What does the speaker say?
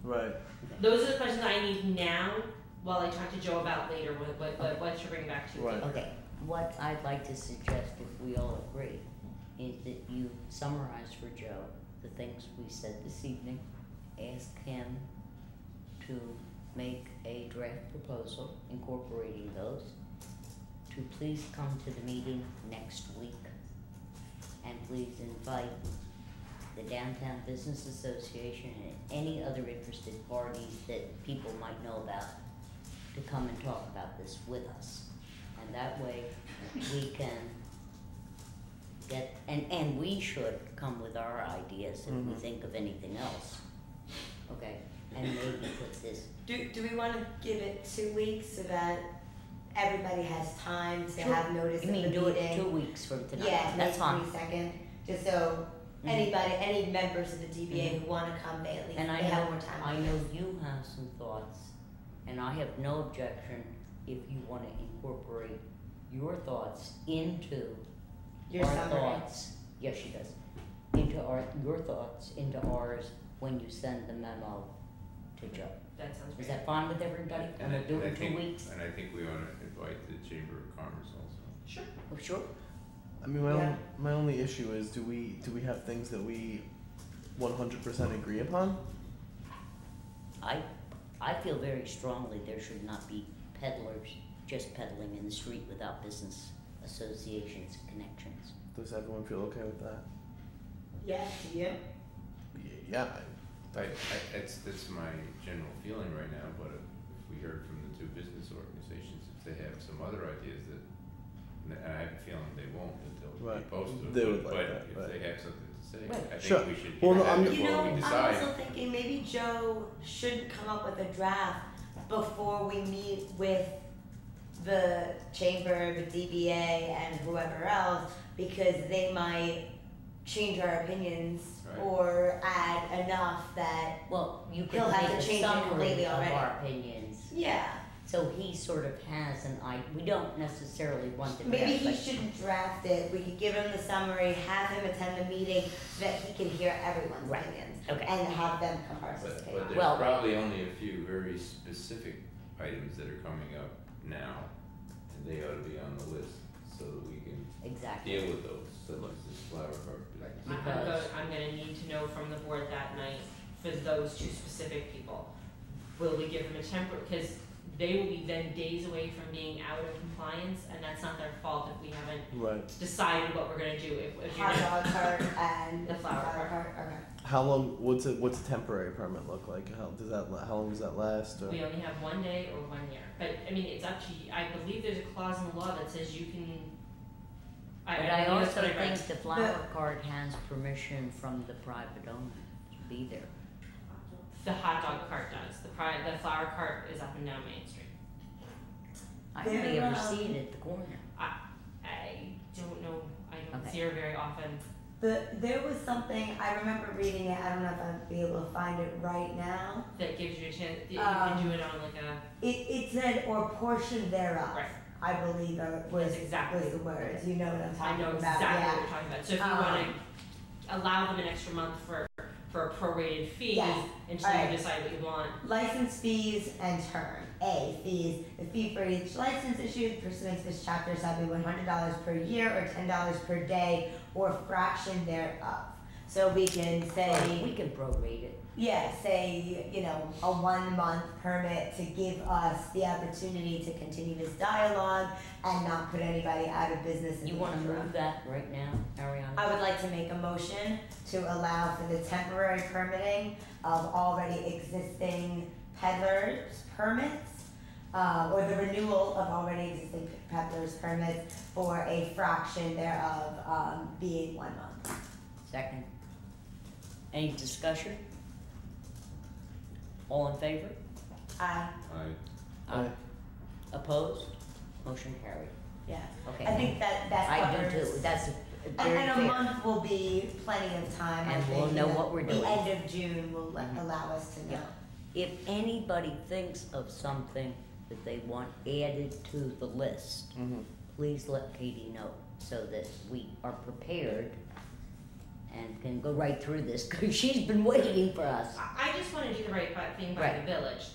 Right. Those are the questions I need now while I talk to Joe about later what, what, what, what to bring back to you. Right. Okay, what I'd like to suggest, if we all agree, is that you summarize for Joe the things we said this evening. Ask him to make a draft proposal incorporating those. To please come to the meeting next week. And please invite the Downtown Business Association and any other interested parties that people might know about to come and talk about this with us. And that way, we can get, and, and we should come with our ideas if we Mhm. think of anything else. Okay, and maybe put this, Do, do we want to give it two weeks so that everybody has time to have notice you of the mean do it two meeting? weeks from tonight, Yeah, May that's fine. twenty-second, just so Mhm. anybody, any members of the DBA who want to come, they at least, they Mm-hmm. And I have know- more time. I know you have some thoughts, and I have no objection if you wanna incorporate your thoughts into Your our summary. thoughts. Yes, she does. Into our, your thoughts into ours when you send the memo to Joe. That sounds Is great. that fine with everybody? And I, We'll do and I it in two think, weeks? and I think we ought to invite the Chamber of Commerce also. Sure. Oh, Sure. I mean, my Yeah. only, my only issue is, do we do we have things that we, one hundred percent agree upon? I, I feel very strongly there should not be peddlers just peddling in the street without business associations, connections. Does everyone feel okay with that? Yes, you? Y- Yeah. I, I, that's, that's my general feeling right now, but if if we heard from the two business organizations, if they have some other ideas that, and I have a feeling they won't, that they'll be Right. posted, They would but, like that, but right. if they have something to say, Right. I Sure. think we should Well, hear no, that I'm- You before know, we I'm decide. also thinking maybe Joe should come up with a draft before we meet with the chamber, the DBA, and whoever else, because they might change our opinions Right. or add enough that, Well, you could He'll have make to a change it summary completely of already. our opinions, yeah. so he sort of has an I, we don't necessarily want the Maybe draft, he but- should draft it, we could give him the summary, have him attend the meeting, so that he can hear everyone's Right. opinions, Okay. and have them come But, participate. but Well- there's probably only a few very specific items that are coming up now, and they ought to be on the list, so that we can Exactly, deal with those, such as this flower park. business. I'm, I'm, Because- go- I'm gonna need to know from the board that night for those two specific people. Will we give them a temporary, because they will be then days away from being out of compliance, and that's not their fault if we haven't Right. decided what we're gonna do, if, if you're. Hot dog cart and The flower cart. okay. How long? What's a what's a temporary permit look like? How does that? la- How long does that last? Or We only have one day or one year, but I mean, it's up to you, I believe there's a clause in the law that says you can. I, but I I believe that's also what I read. think the flower cart has permission from the private owner to be there. the hot dog cart does, the pri- the flower cart is up and down Main Street. I They're, may ever um, see it at the corner, I don't know, I don't Okay. see her very often, The, there was something, I remember reading it, I don't know if I'll be able to find it right now. that gives you a chance, that you can Um, do it on like a, It, it said, or portion thereof, right, I believe are- was, That's exactly- was the words, you know what I'm I talking know about, yeah. exactly what you're talking about, so if you wanna Um, allow them an extra month for, for a prorated fee, Yes. until you Alright. decide what you want, License fees and term. A, fees. The fee for each license issued pursuant to this chapter shall be one hundred dollars per year or ten dollars per day or fraction thereof. So we can say. we can prorate it, Yeah, say, you know, a one month permit to give us the opportunity to continue this dialogue and not put anybody out of business in you the wanna interim. move that right now, Ariana? I would like to make a motion to allow for the temporary permitting of already existing peddlers permits, uh, or the renewal of already existing peddlers permits for a fraction thereof, um, being one month. Second. Any discussion? All in favor? I, I- Aye. Opposed? Motion carried. yeah, Okay. I think that, that I covers. do too, that's a- very And, fair. and a month will be plenty of time, I And think. we'll know you what we're doing. The end of June will let- Mhm. allow us to know. Yeah. If anybody thinks of something that they want added to the list, Mm-hmm. Mhm. please let Katie know so that we are prepared and can go right through this, cause she's been waiting for us. I, I just wanna do the right bu- thing by the village,